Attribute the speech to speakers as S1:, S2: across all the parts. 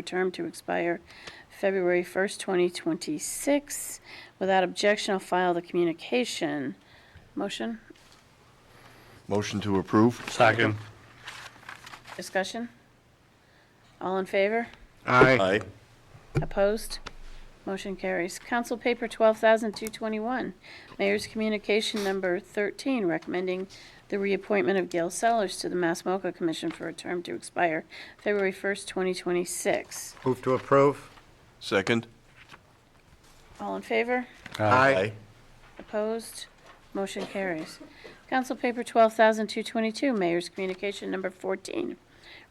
S1: for term to expire February 1st, 2026. Without objection, I'll file the communication. Motion,
S2: Motion to approve?
S3: Second.
S1: discussion? All in favor?
S3: Aye.
S2: Aye.
S1: Opposed? Motion carries. Council Paper 12,221, Mayor's Communication Number 13, recommending the reappointment of Gail Sellers to the Mass MoCA Commission for a term to expire February 1st, 2026.
S4: Move to approve.
S2: Second?
S1: All in favor?
S4: Aye.
S1: Opposed? Motion carries. Council Paper 12,222, Mayor's Communication Number 14,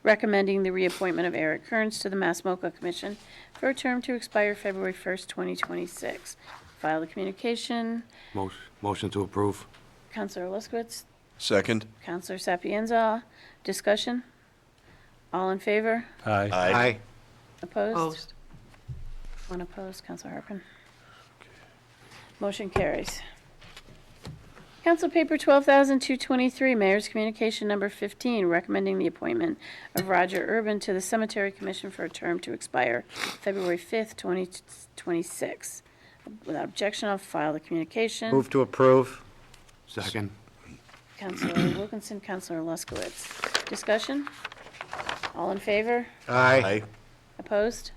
S1: recommending the reappointment of Eric Kearns to the Mass MoCA Commission for a term to expire February 1st, 2026. File the communication.
S3: Motion- Motion to approve.
S1: Counselor Luskowitz,
S2: Second?
S1: Counselor Sapienza, discussion? All in favor?
S3: Aye.
S1: Opposed?
S5: Opposed.
S1: One opposed, Counselor Harpen. Motion carries. Council Paper 12,223, Mayor's Communication Number 15, recommending the appointment of Roger Urban to the Cemetery Commission for a term to expire February 5th, 2026. Without objection, I'll file the communication.
S4: Move to approve.
S3: Second.
S1: Counselor Wilkinson, Counselor Luskowitz. Discussion? All in favor?
S4: Aye.
S1: Opposed?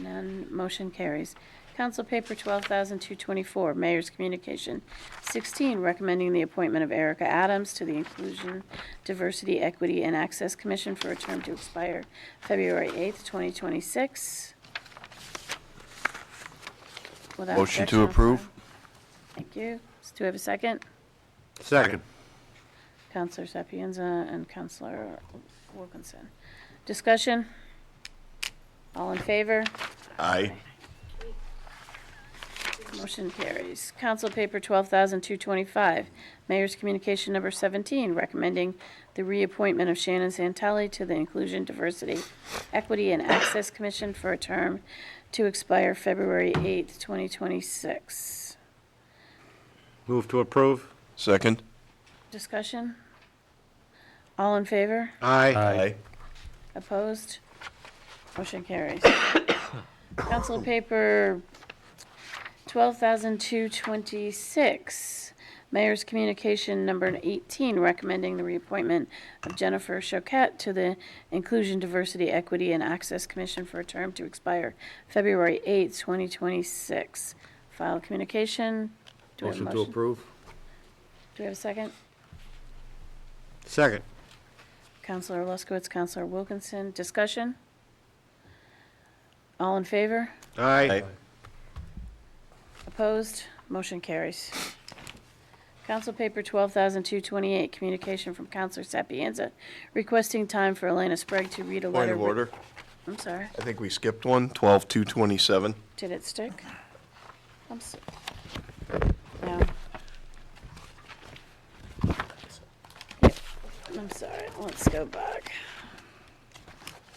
S1: None. Motion carries. Council Paper 12,224, Mayor's Communication 16, recommending the appointment of Erica Adams to the Inclusion, Diversity, Equity, and Access Commission for a term to expire February 8th, 2026. Without
S2: Motion
S1: objection,
S2: to
S1: I'll file.
S2: approve?
S1: Thank you. Do we have a second?
S4: Second.
S1: Counselor Sapienza and Counselor Wilkinson. Discussion? All in favor?
S2: Aye.
S1: Motion carries. Council Paper 12,225, Mayor's Communication Number 17, recommending the reappointment of Shannon Santelli to the Inclusion, Diversity, Equity, and Access Commission for a term to expire February 8th, 2026.
S4: Move to approve.
S2: Second?
S1: Discussion? All in favor?
S4: Aye.
S1: Opposed? Motion carries. Council Paper 12,226, Mayor's Communication Number 18, recommending the reappointment of Jennifer Choquette to the Inclusion, Diversity, Equity, and Access Commission for a term to expire February 8, 2026. File communication. Do we have a
S3: Motion to approve.
S1: Do we have a second?
S4: Second.
S1: Counselor Luskowitz, Counselor Wilkinson, discussion? All in favor?
S4: Aye.
S1: Opposed? Motion carries. Council Paper 12,228, communication from Counselor Sapienza requesting time for Elena Sprague to read a
S2: Point
S1: letter.
S2: of order.
S1: I'm sorry,
S2: I think we skipped one. Twelve two twenty-seven.
S1: did it stick? I'm s- No. Yep, I'm sorry, let's go back.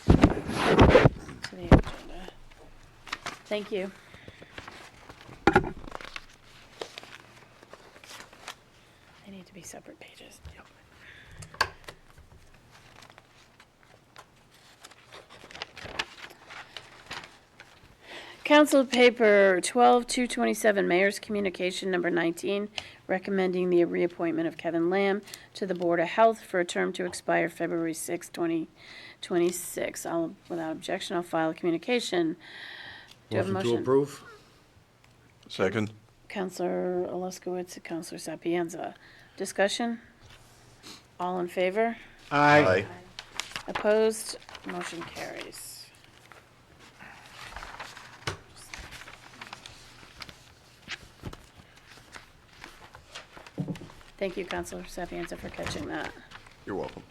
S1: To the agenda. Thank you. They need to be separate pages. Council Paper 12227, Mayor's Communication Number 19, recommending the reappointment of Kevin Lamb to the Board of Health for a term to expire February 6, 2026. I'll, without objection, I'll file a communication. Do you have a
S3: Motion to
S1: motion?
S3: approve.
S2: Second?
S1: Counselor Alaskowitz, and Counselor Sapienza. Discussion? All in favor?
S4: Aye.
S1: Opposed? Motion carries. Thank you, Counselor Sapienza, for catching that.
S2: You're welcome.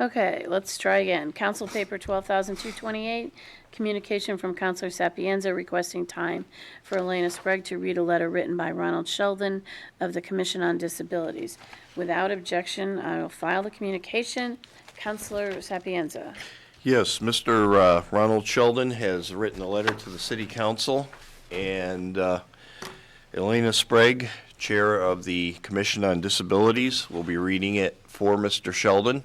S1: Okay, let's try again. Council Paper 12,228, communication from Counselor Sapienza requesting time for Elena Sprague to read a letter written by Ronald Sheldon of the Commission on Disabilities. Without objection, I will file the communication. Counselor Sapienza.
S2: Yes, Mr. uh, Ronald Sheldon has written a letter to the city council, and uh, Elena Sprague, Chair of the Commission on Disabilities, will be reading it for Mr. Sheldon,